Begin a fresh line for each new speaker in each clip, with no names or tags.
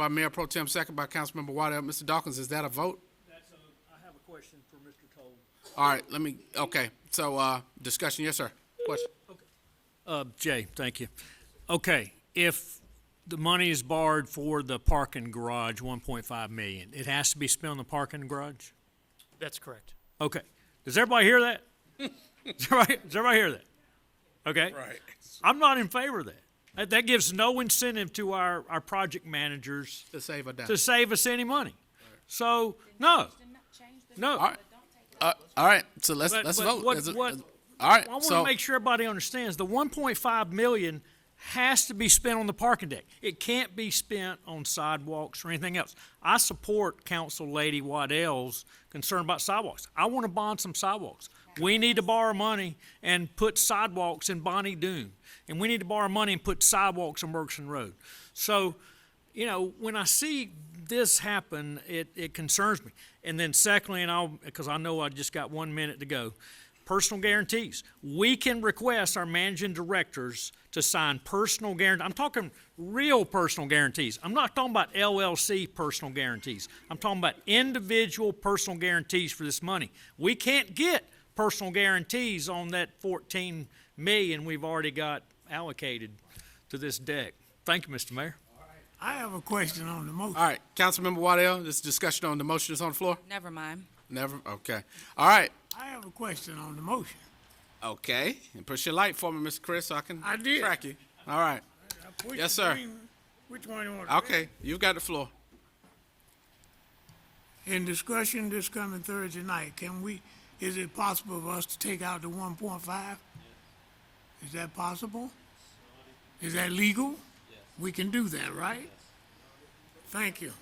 by Mayor Pro Tem, second by Councilmember Waddell. Mr. Dawkins, is that a vote?
That's a, I have a question for Mr. Toll.
All right, let me, okay, so, uh, discussion, yes, sir. Question?
Uh, Jay, thank you. Okay, if the money is borrowed for the parking garage, one point five million, it has to be spent on the parking garage?
That's correct.
Okay. Does everybody hear that? Does everybody, does everybody hear that? Okay.
Right.
I'm not in favor of that. That, that gives no incentive to our, our project managers
To save a dime.
to save us any money. So, no, no.
All right. Uh, all right, so let's,
But-
let's
but
vote.
what-
Is it-
what-
is- All right,
I want to
so,
make sure everybody understands the 1.5 million has to be spent on the parking deck. It can't be spent on sidewalks or anything else. I support Council Lady Waddell's concern about sidewalks. I want to bond some sidewalks. We need to borrow money and put sidewalks in Bonnie Doon, and we need to borrow money and put sidewalks on Bergson Road. So, you know, when I see this happen, it, it concerns me. And then secondly, and I'll, because I know I just got one minute to go, personal guarantees. We can request our managing directors to sign personal guarantees. I'm talking real personal guarantees. I'm not talking about LLC personal guarantees. I'm talking about individual personal guarantees for this money. We can't get personal guarantees on that 14 million we've already got allocated to this deck. Thank you, Mr. Mayor.
I have a question on the motion.
all right, Councilmember Waddell, this is discussion on the motion that's on the floor?
Never mind.
Never, okay. All right,
I have a question on the motion.
okay, and push your light for me, Mr. Chris, so I can
I did.
track you. All right,
Which
Yes, sir.
one- Which one you want? to
okay, you've got the floor.
pick? In discussion this coming Thursday night, can we, is it possible for us to take out the one point five? Is that possible? Is that legal? We can do that, right? Thank you.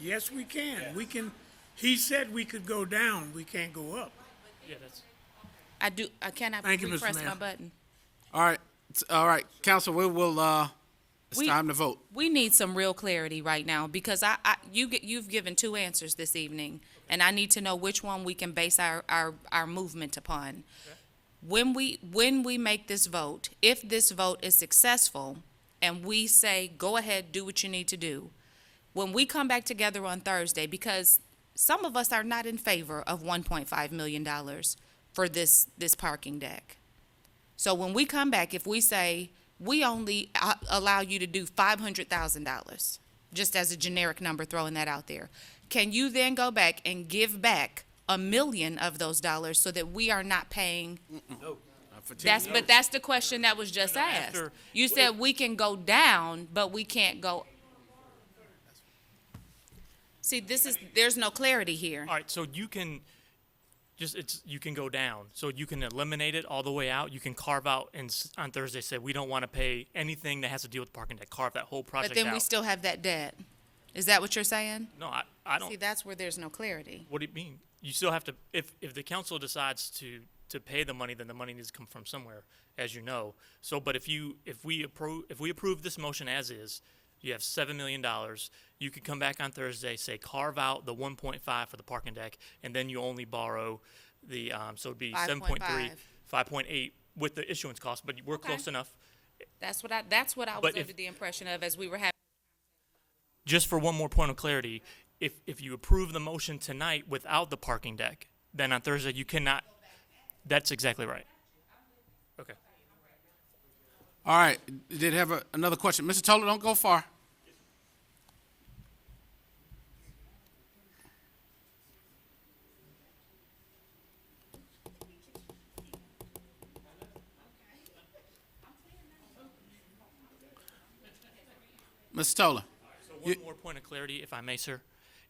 Yes, we can. We can, he said we could go down, we can't go up.
Yeah, that's,
I do, I cannot
Thank you, Mr.
press my
Mayor.
button.
All right, t- all right, council, we will, uh, it's
We-
time to vote.
We need some real clarity right now because I, I, you, get- you've given two answers this evening. And I need to know which one we can base our, our, our movement upon. When we, when we make this vote, if this vote is successful and we say, go ahead, do what you need to do. When we come back together on Thursday, because some of us are not in favor of one point five million dollars for this, this parking deck. So when we come back, if we say, we only uh, allow you to do five hundred thousand dollars, just as a generic number, throwing that out there, can you then go back and give back a million of those dollars so that we are not paying? That's, but that's the question that was just asked.
after-
You said we can go down, but we can't go. See, this is, there's no clarity here.
all right, so you can, just, it's, you can go down. So you can eliminate it all the way out. You can carve out and s- on Thursday say, we don't want to pay anything that has to deal with parking deck, carve that whole
But
project
then we
out.
still have that debt. Is that what you're saying?
No, I, I
See,
don't,
that's where there's no clarity.
what do you mean? You still have to, if, if the council decides to, to pay the money, then the money needs to come from somewhere, as you know. So, but if you, if we approve, if we approve this motion as is, you have seven million dollars. You could come back on Thursday, say carve out the one point five for the parking deck, and then you only borrow the, um, so it'd be seven point three,
5.5.
five point eight with the issuance cost, but we're close enough.
That's what I, that's what I was
But if-
under the impression of as we were having.
just for one more point of clarity, if, if you approve the motion tonight without the parking deck, then on Thursday you cannot, that's exactly right. Okay.
All right, did have a- another question. Mr. Toler, don't go far. Mr. Toler,
So one more point of clarity, if I may, sir.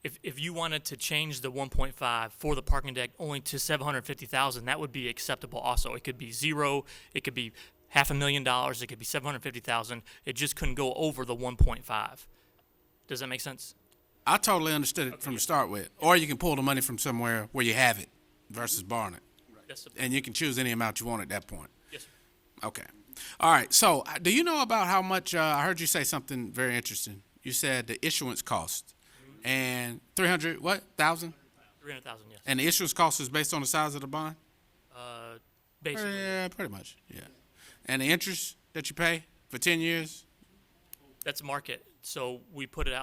If, if you wanted to change the one point five for the parking deck only to seven hundred fifty thousand, that would be acceptable also. It could be zero, it could be half a million dollars, it could be seven hundred fifty thousand. It just couldn't go over the one point five. Does that make sense?
I totally understood it from the start with, or you can pull the money from somewhere where you have it versus borrowing it.
That's the-
And you can choose any amount you want at that point.
Yes, sir.
Okay. All right. So, uh, do you know about how much? Uh, I heard you say something very interesting. You said the issuance cost
Mm-hmm.
and three hundred what thousand,
Three hundred thousand, yes.
and the issuance cost is based on the size of the bond.
Uh, basically,
Yeah, pretty much. Yeah, and the interest that you pay for ten years.
that's market. So we put it out.